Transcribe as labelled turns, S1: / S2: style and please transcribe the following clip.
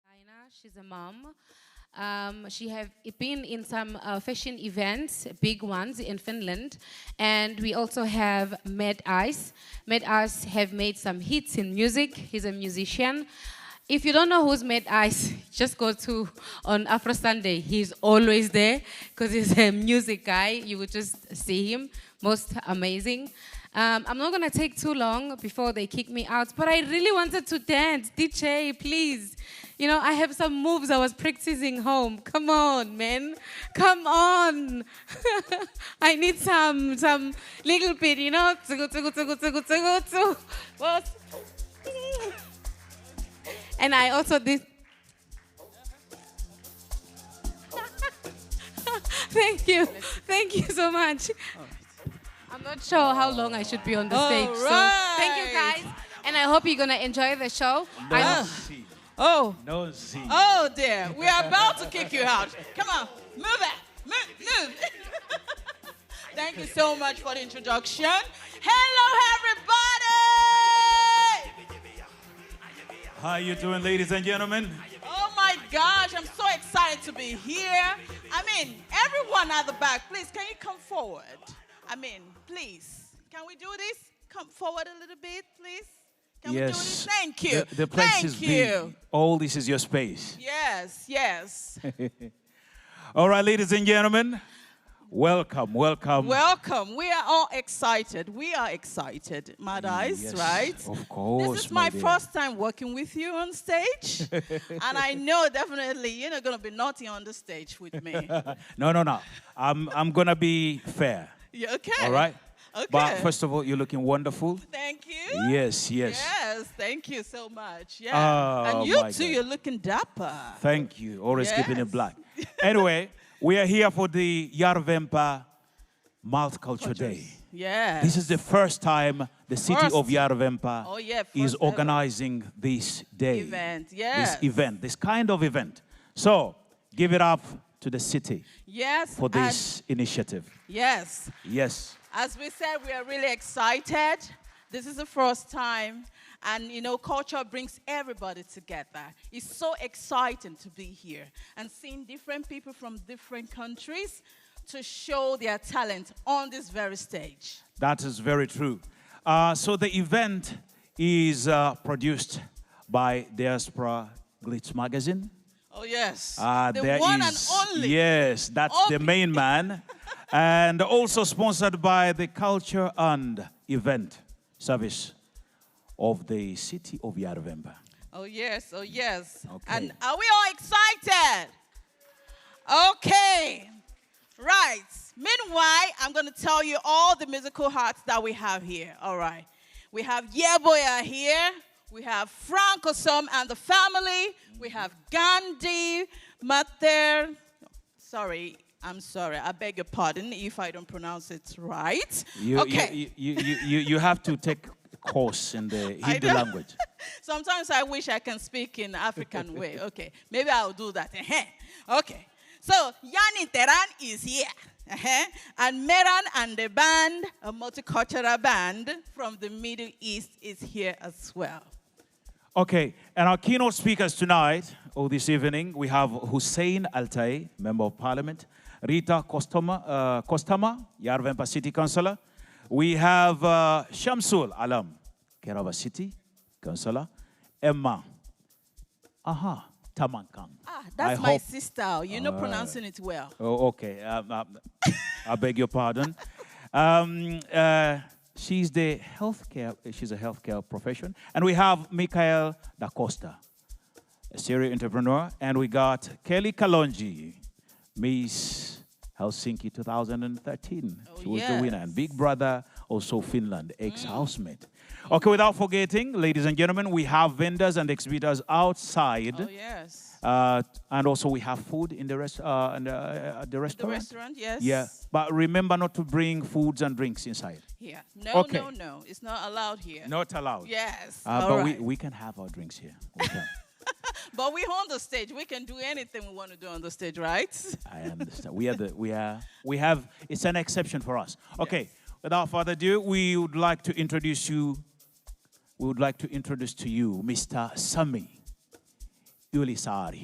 S1: She's a mom. Um, she have been in some uh, fashion events, big ones in Finland, and we also have Med Ice. Med Ice have made some hits in music. He's a musician. If you don't know who's Med Ice, just go to on Afro Sunday. He's always there because he's a music guy. You would just see him. Most amazing. Um, I'm not gonna take too long before they kick me out, but I really wanted to dance. DJ, please. You know, I have some moves I was practicing home. Come on, man. Come on. I need some some little bit, you know. Tsugu, tsugu, tsugu, tsugu, tsugu, tsugu. What? And I also did. Thank you. Thank you so much. I'm not sure how long I should be on the stage. So thank you
S2: right.
S1: guys. And I hope you're going to enjoy the show. I-
S3: Z.
S2: Oh,
S3: No Z.
S2: oh dear. We are about to kick you out. Come on, move it. Move, move. Thank you so much for the introduction. Hello, everybody.
S3: How you doing, ladies and gentlemen?
S2: Oh my gosh, I'm so excited to be here. I mean, everyone at the back, please, can you come forward? I mean, please, can we do this? Come forward a little bit, please. Can we do this? Thank you.
S3: The, the place
S2: Thank
S3: is
S2: you.
S3: big. All this is your space.
S2: Yes, yes.
S3: All right, ladies and gentlemen, welcome, welcome.
S2: Welcome. We are all excited. We are excited, Mad Eyes,
S3: Yes,
S2: right?
S3: Of course.
S2: This is my
S3: dear.
S2: first time working with you on stage, and I know definitely you're not going to be naughty on the stage with me.
S3: Uh, No, no, no. I'm, I'm gonna be fair.
S2: You okay?
S3: All right.
S2: Okay.
S3: But first of all, you're looking wonderful.
S2: Thank you.
S3: Yes, yes.
S2: Yes, thank you so much. Yeah.
S3: Oh,
S2: and you
S3: my
S2: too,
S3: God.
S2: you're looking dapper.
S3: Thank you. Always keeping
S2: Yes.
S3: it black. anyway, we are here for the Yarvempa Multicultural Day.
S2: Yeah.
S3: This is the first time the city
S2: First.
S3: of Yarvempa
S2: Oh, yeah,
S3: is
S2: first ever.
S3: organizing this day.
S2: Event, yes.
S3: This event, this kind of event. So give it up to the city
S2: yes.
S3: for
S2: and-
S3: this initiative.
S2: yes.
S3: Yes.
S2: As we said, we are really excited. This is the first time. And you know, culture brings everybody together. It's so exciting to be here and seeing different people from different countries to show their talent on this very stage.
S3: That is very true. Uh, so the event is uh, produced by Diaspora Glitz Magazine.
S2: Oh, yes.
S3: Uh,
S2: the
S3: there
S2: one
S3: is-
S2: and only.
S3: Yes, that's the
S2: Only.
S3: main man. and also sponsored by the Culture and Event Service of the City of Yarvemba.
S2: Oh, yes, oh, yes.
S3: Okay.
S2: And are we all excited? Okay. Right. Meanwhile, I'm going to tell you all the musical hearts that we have here. All right. We have Yeboya here. We have Frank Osom and the family. We have Gandhi, Mater. Sorry, I'm sorry. I beg your pardon if I don't pronounce it right.
S3: You,
S2: okay.
S3: You, you, you, you, you have to take a course in the
S2: I
S3: Hindu
S2: know.
S3: language.
S2: Sometimes I wish I can speak in African way. Okay, maybe I'll do that. Ehem. Okay, so Yani Teran is here. Ehem. And Meran and the band, a multicultural band from the Middle East, is here as well.
S3: Okay, and our keynote speakers tonight or this evening, we have Hussein Altai, Member of Parliament, Rita Kostoma, uh, Kostama, Yarvempa City Councillor. We have uh, Shamsul Alam, Kerava City Councillor, Emma. Aha, Tamankang.
S2: Ah,
S3: I
S2: that's my
S3: hope- Uh,
S2: sister. You're not pronouncing it well.
S3: Oh, okay. Um, um, I beg your pardon. Um, uh, she's the healthcare. She's a healthcare profession, and we have Michael Da Costa, a serial entrepreneur, and we got Kelly Kalonji, Miss Helsinki 2013.
S2: Oh,
S3: she was the winner,
S2: yes.
S3: and Big Brother also Finland ex-housemate. Okay, without forgetting, ladies and gentlemen, we have vendors and exhibitors outside.
S2: Oh, yes.
S3: Uh, and also we have food in the rest uh, in the, uh, at the
S2: The
S3: restaurant.
S2: restaurant, yes.
S3: Yeah, but remember not to bring foods and drinks inside.
S2: Here. No,
S3: Okay.
S2: no, no. It's not allowed here.
S3: Not allowed.
S2: Yes.
S3: Uh,
S2: all
S3: but
S2: right.
S3: we, we can have our drinks here. We can.
S2: but we're on the stage. We can do anything we want to do on the stage, right?
S3: I understand. We are the we are we have. It's an exception for us. Okay. Without further ado, we would like to introduce you. We would like to introduce to you Mr. Sami Ulisari.